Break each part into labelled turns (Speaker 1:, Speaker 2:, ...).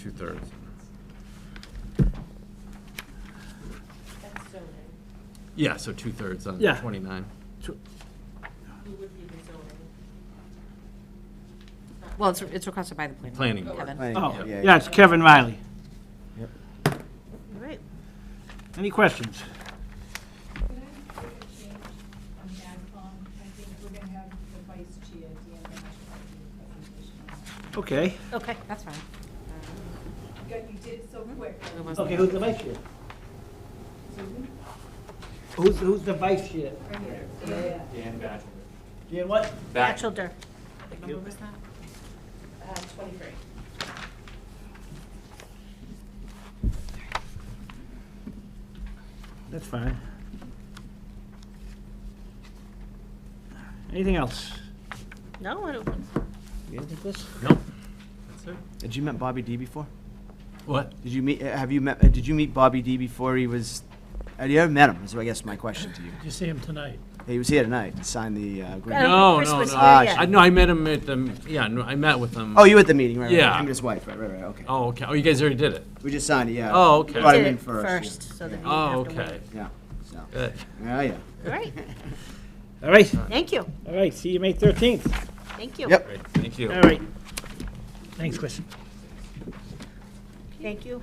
Speaker 1: two-thirds.
Speaker 2: That's zoning.
Speaker 1: Yeah, so two-thirds on
Speaker 3: Yeah.
Speaker 1: 29.
Speaker 3: Oh,
Speaker 2: Who would be the zoning?
Speaker 4: Well, it's, it's requested by the planning.
Speaker 1: Planning
Speaker 4: board,
Speaker 1: board.
Speaker 4: Kevin.
Speaker 5: Planning
Speaker 3: Oh,
Speaker 5: board,
Speaker 3: yeah, it's Kevin Riley.
Speaker 5: Yep.
Speaker 4: All right.
Speaker 3: Any questions?
Speaker 6: Could I make a change on AdCom? I think we're gonna have the vice chair at the end of the
Speaker 3: Okay.
Speaker 4: Okay, that's fine.
Speaker 6: presentation. You did it so quick.
Speaker 4: It wasn't-
Speaker 3: Okay, who's the vice chair?
Speaker 6: Susan?
Speaker 3: Who's, who's the vice chair?
Speaker 6: Right here. Yeah.
Speaker 7: Dan Batchelder.
Speaker 3: Yeah, what?
Speaker 4: Batchelder.
Speaker 3: Thank
Speaker 4: What
Speaker 3: you.
Speaker 4: number was that?
Speaker 2: Uh, twenty-three.
Speaker 3: That's fine. Anything else?
Speaker 4: No, I don't.
Speaker 5: You didn't think this?
Speaker 1: Nope. That's it.
Speaker 5: Did you met Bobby D before?
Speaker 1: What?
Speaker 5: Did you meet, have you met, uh, did you meet Bobby D before he was, had you ever met him, is I guess my question to you.
Speaker 3: You see him tonight.
Speaker 5: He was here tonight and signed the uh, agreement.
Speaker 1: No,
Speaker 4: Chris
Speaker 1: no,
Speaker 4: was
Speaker 1: no.
Speaker 4: here,
Speaker 5: Ah,
Speaker 4: yeah.
Speaker 1: I, no, I met him at the, yeah, no, I met with him.
Speaker 5: Oh, you were at the meeting, right, right,
Speaker 1: Yeah.
Speaker 5: right, him and his wife, right, right, right, okay.
Speaker 1: Oh, okay. Oh, you guys already did it?
Speaker 5: We just signed it, yeah.
Speaker 1: Oh, okay.
Speaker 5: Brought
Speaker 4: Did
Speaker 5: him in
Speaker 4: it
Speaker 5: first.
Speaker 4: first,
Speaker 5: yeah.
Speaker 4: so that you-
Speaker 1: Oh,
Speaker 4: have to wait.
Speaker 1: okay.
Speaker 5: Yeah, so,
Speaker 1: Good.
Speaker 5: yeah, yeah.
Speaker 4: All right,
Speaker 3: All right,
Speaker 4: thank you,
Speaker 3: all right, see you May 13th.
Speaker 4: thank you.
Speaker 5: Yep.
Speaker 1: Great. Thank you.
Speaker 3: All right. Thanks, Chris.
Speaker 4: Thank you.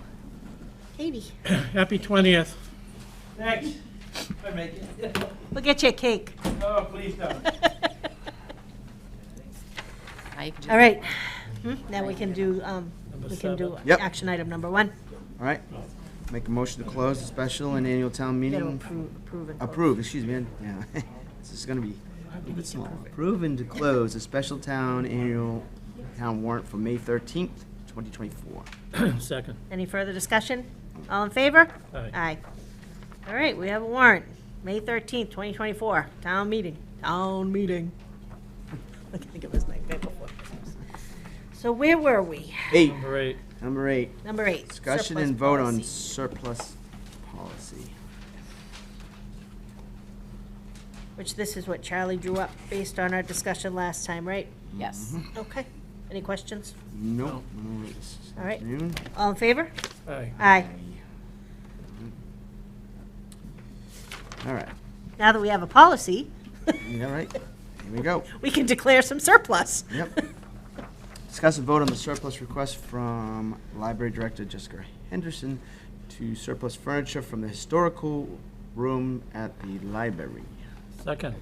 Speaker 4: Katie,
Speaker 8: Happy 20th.
Speaker 3: Thanks. I make it.
Speaker 4: we'll get you a cake.
Speaker 3: Oh, please don't.
Speaker 4: All right, Hmm, now we can do, um, we can do
Speaker 5: Yep. Mm-hmm.
Speaker 4: action item number one.
Speaker 5: All right, make a motion to close the special and annual town
Speaker 4: You gotta
Speaker 5: meeting.
Speaker 4: approve, approve and. vote.
Speaker 5: Approve, excuse me, yeah. This is gonna be proven to close the special town annual town warrant for May thirteenth, twenty twenty-four.
Speaker 8: Second.
Speaker 4: Any further discussion? All in favor?
Speaker 8: Aye.
Speaker 4: All right, we have a warrant, May thirteenth, twenty twenty-four, town meeting, town meeting. I think it was like that before. So where were we?
Speaker 5: Eight,
Speaker 8: Number eight.
Speaker 5: number eight,
Speaker 4: Number eight.
Speaker 5: discussion
Speaker 4: surplus
Speaker 5: and vote on
Speaker 4: policy.
Speaker 5: surplus policy.
Speaker 4: Which this is what Charlie drew up based on our discussion last time, right? Mm-hmm.
Speaker 2: Yes.
Speaker 4: Okay. Any questions?
Speaker 5: Nope. no, it's this
Speaker 4: All right.
Speaker 5: afternoon.
Speaker 4: All in favor?
Speaker 8: Aye.
Speaker 4: Aye.
Speaker 5: All right,
Speaker 4: Now that we have a policy,
Speaker 5: yeah, right, here we go.
Speaker 4: we can declare some surplus.
Speaker 5: Yep. Discuss and vote on the surplus request from Library Director Jessica Henderson to surplus furniture from the historical room at the library.
Speaker 8: Second.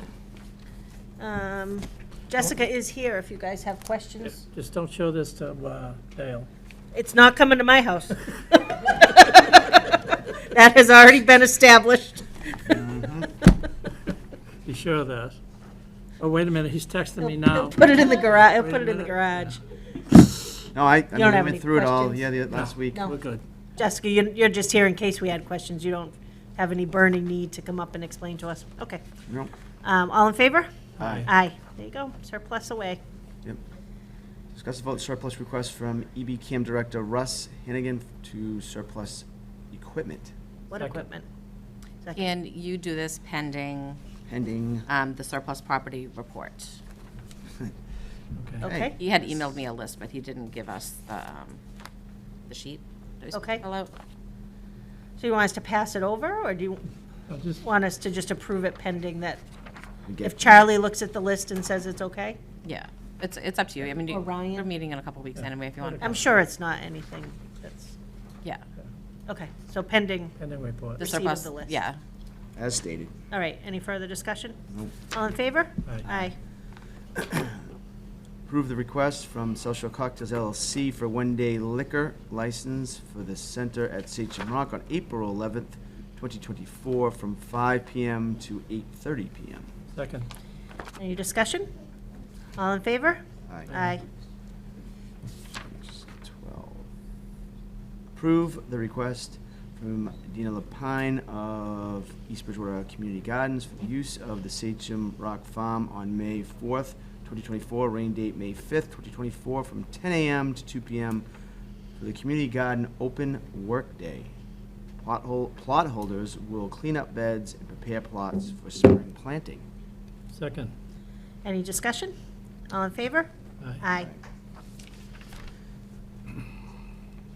Speaker 4: Um, Jessica is here if you guys have questions.
Speaker 8: Just don't show this to uh, Dale.
Speaker 4: It's not coming to my house. That has already been established.
Speaker 8: Mm-hmm. Be sure of that. Oh, wait a minute, he's texting me
Speaker 4: He'll
Speaker 8: now.
Speaker 4: Put it in the garage, he'll put
Speaker 8: a
Speaker 4: it in the
Speaker 8: minute.
Speaker 4: garage.
Speaker 5: No, I, I mean,
Speaker 4: have
Speaker 5: I
Speaker 4: any
Speaker 5: went through it all,
Speaker 4: questions?
Speaker 5: yeah, the, uh, last week.
Speaker 4: No.
Speaker 8: We're Oh, good.
Speaker 4: Jessica, you- you're just here in case we had questions. You don't have any burning need to come up and explain to us. Okay.
Speaker 5: No.
Speaker 4: Um, All in favor?
Speaker 5: Aye.
Speaker 4: Aye. There you go, surplus away.
Speaker 5: Discuss and vote surplus request from EB Cam Director Russ Hennigan to surplus equipment
Speaker 4: What
Speaker 8: Second.
Speaker 4: equipment? Second.
Speaker 2: And you do this pending
Speaker 5: pending.
Speaker 2: um, the surplus property report.
Speaker 5: Oh.
Speaker 8: Okay.
Speaker 4: Okay,
Speaker 2: He had emailed me a list, but he didn't give us the, um, the sheet. that we
Speaker 4: Okay.
Speaker 2: fill out.
Speaker 4: so you want us to pass it over, or do you
Speaker 8: I'll just-
Speaker 4: want us to just approve it pending that,
Speaker 5: We get-
Speaker 4: if Charlie looks at the list and says it's okay?
Speaker 2: Yeah, it's, it's up to you. I mean, you-
Speaker 4: Or Ryan.
Speaker 2: we're meeting in a couple weeks anyway, if you want.
Speaker 4: I'm sure it's not anything that's,
Speaker 2: Yeah,
Speaker 4: okay, so pending,
Speaker 8: And then we put.
Speaker 2: the
Speaker 4: Receipt of
Speaker 2: surplus,
Speaker 4: the list.
Speaker 2: yeah.
Speaker 5: As stated.
Speaker 4: all right, any further discussion? All in favor? Aye.
Speaker 5: Approve the request from Social Cocktails LLC for one-day liquor license for the center at Sachem Rock on April 11th, 2024, from 5 PM to 8:30 PM.
Speaker 8: Second.
Speaker 4: Any discussion? All in favor?
Speaker 5: Aye.
Speaker 4: Aye.
Speaker 5: Just 12. Approve the request from Dina Lapine of East Bridgewater Community Gardens for the use of the Sachem Rock Farm on May 4th, 2024, rain date May 5th, 2024, from 10 a.m. to 2 p.m. for the Community Garden Open Workday. Plot hol- Plot holders will clean up beds and prepare plots for spring planting.
Speaker 8: Second.
Speaker 4: Any discussion? All in favor?
Speaker 8: Aye.
Speaker 4: Aye.